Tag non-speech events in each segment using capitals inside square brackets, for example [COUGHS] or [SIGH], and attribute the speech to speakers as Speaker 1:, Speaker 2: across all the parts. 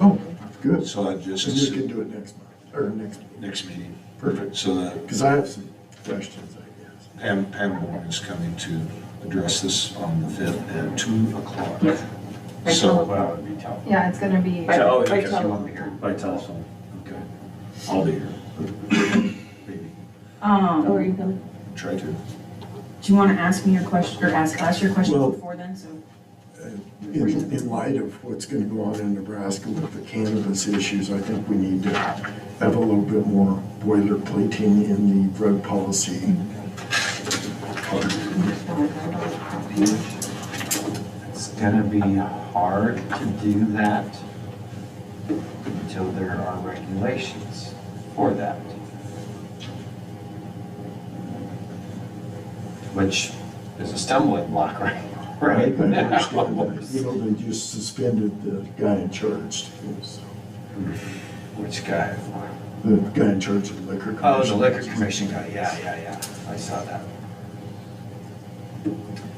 Speaker 1: Oh, Good. So
Speaker 2: So I just,
Speaker 1: we can do it next month, or next meeting.
Speaker 2: next meeting.
Speaker 1: Perfect.
Speaker 2: So that
Speaker 1: Because I have some questions, I guess.
Speaker 2: Pam, Pam Moore is coming to address this on the fifth at two o'clock.
Speaker 3: Yep. By
Speaker 2: So,
Speaker 3: telephone.
Speaker 4: Wow, it'd be tough.
Speaker 3: Yeah, it's gonna be.
Speaker 4: By- oh,
Speaker 3: by
Speaker 4: because you
Speaker 3: telephone.
Speaker 4: won't be here. By telephone.
Speaker 2: okay, I'll be here. [COUGHS] Maybe,
Speaker 5: Um,
Speaker 3: Oh, are
Speaker 5: do
Speaker 3: you coming?
Speaker 2: try to.
Speaker 5: you want to ask me your question, or ask us your
Speaker 1: Well-
Speaker 5: question before then, so?
Speaker 1: In, in light of what's going to go on in Nebraska with the cannabis issues, I think we need to have a little bit more boilerplating in the drug policy.
Speaker 4: It's gonna be hard to do that until there are regulations for that. Which is a stumbling block [LAUGHS] right,
Speaker 1: I
Speaker 4: right
Speaker 1: understand that. You
Speaker 4: now.
Speaker 1: know, they just suspended the guy in charge, too, so-
Speaker 4: Which guy?
Speaker 1: the guy in charge of the liquor commission.
Speaker 4: Oh, the liquor commission guy, yeah, yeah, yeah, I saw that.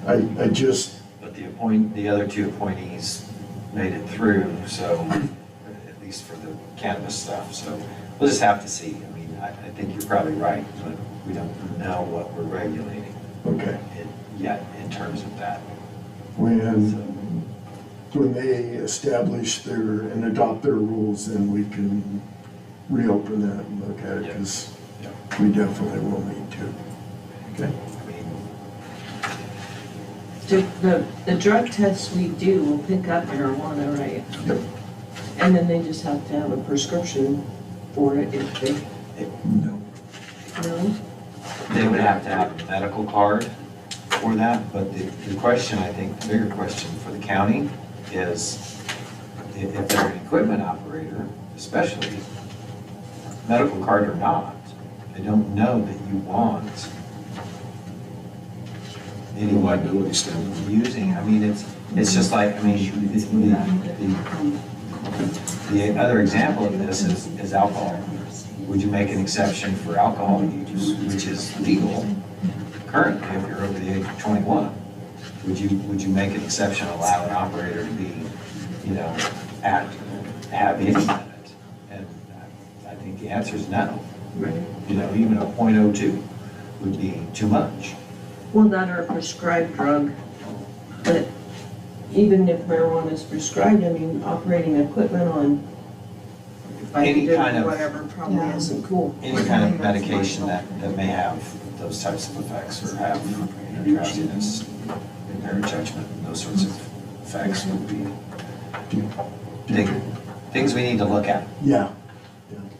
Speaker 1: I, I just,
Speaker 4: But the appoint, the other two appointees made it through, so, at least for the cannabis stuff, so we'll just have to see. I mean, I, I think you're probably right, but we don't know what we're regulating
Speaker 1: okay,
Speaker 4: in- yet in terms of that.
Speaker 1: when,
Speaker 4: So,
Speaker 1: when they establish their, and adopt their rules, then we can reopen that and look at it,
Speaker 4: Yeah.
Speaker 1: because
Speaker 4: Yeah.
Speaker 1: we definitely will need to. Okay,
Speaker 4: I mean,
Speaker 6: The, the, the drug tests we do will pick up marijuana, right?
Speaker 1: Yep.
Speaker 6: And then they just have to have a prescription for it if they,
Speaker 1: no,
Speaker 6: no?
Speaker 4: They would have to have a medical card for that, but the, the question, I think, the bigger question for the county is i- if they're an equipment operator, especially, medical card or not, they don't know that you want anyone
Speaker 2: Liability standard.
Speaker 4: using, I mean, it's, it's just like, I mean, it's,
Speaker 7: um,
Speaker 4: the, the, the other example of this is, is alcohol. Would you make an exception for alcohol use, which is legal currently if you're over the age of 21? Would you, would you make an exception, allow an operator to be, you know, at, have any of it? And I I think the answer is no. You know, even a .02 would be too much.
Speaker 6: Well, that are a prescribed drug, but even if marijuana is prescribed, I mean, operating equipment on
Speaker 4: Any kind of-
Speaker 6: whatever probably
Speaker 3: Yeah.
Speaker 6: isn't cool.
Speaker 4: Any kind of medication that, that may have those types of effects or have you know, drowsiness, impaired judgment, those sorts of effects would be Thing- Things we need to look at.
Speaker 1: yeah,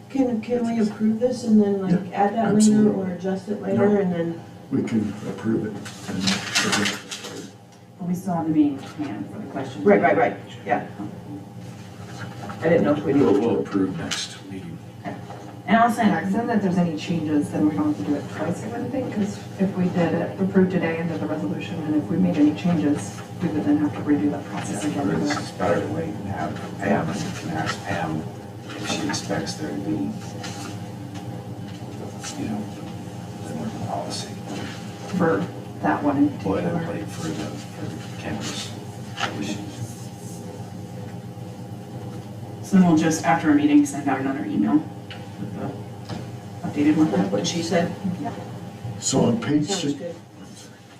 Speaker 6: Can, can we approve this and then like add that later
Speaker 1: absolutely.
Speaker 6: or adjust it
Speaker 1: No.
Speaker 6: later and then?
Speaker 1: we can approve it. and-
Speaker 3: But we still have the meeting planned for the question.
Speaker 6: Right, right, right, yeah. I didn't know if we
Speaker 2: We'll,
Speaker 6: needed
Speaker 2: we'll
Speaker 6: to.
Speaker 2: approve next meeting.
Speaker 3: And I'll send Exxon that if there's any changes, then we don't have to do it twice, I wouldn't think, because if we did it, approved today and did the resolution, and if we made any changes, we would then have to redo that process
Speaker 4: It's
Speaker 3: again.
Speaker 4: it's better to wait and have Pam, and you can ask Pam if she expects there to be, you know, a policy
Speaker 3: For that one in particular.
Speaker 4: boilerplate for the, for cannabis issues.
Speaker 7: So then we'll just, after our meeting, send out another email. Updated one.
Speaker 6: That's what she said.
Speaker 1: So on page
Speaker 6: Sounds
Speaker 1: six,
Speaker 6: good.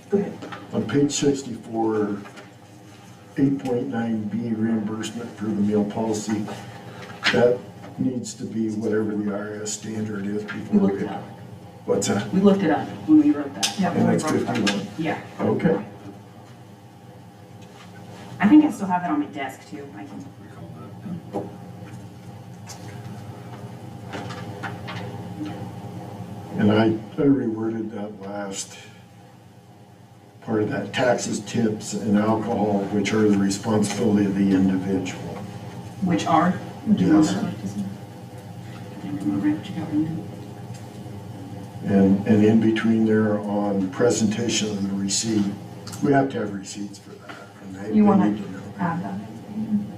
Speaker 6: Go ahead.
Speaker 1: On page sixty-four, eight point nine B reimbursement for the meal policy, that needs to be whatever the IRS standard is
Speaker 7: We
Speaker 1: before
Speaker 7: looked
Speaker 1: we.
Speaker 7: it up.
Speaker 1: What's that?
Speaker 7: We looked it up when we wrote that.
Speaker 3: Yeah,
Speaker 1: And
Speaker 3: we
Speaker 1: that's
Speaker 3: wrote that.
Speaker 1: fifty-one,
Speaker 7: Yeah.
Speaker 1: okay.
Speaker 7: I think I still have that on my desk too. I can,
Speaker 1: And I, I reworded that last part of that, taxes, tips, and alcohol, which are the responsibility of the individual.
Speaker 7: which are?
Speaker 1: Yes. And, and in between there on presentation of the receipt, we have to have receipts for that, and they they
Speaker 3: You wanna
Speaker 1: need to know.
Speaker 3: Add that.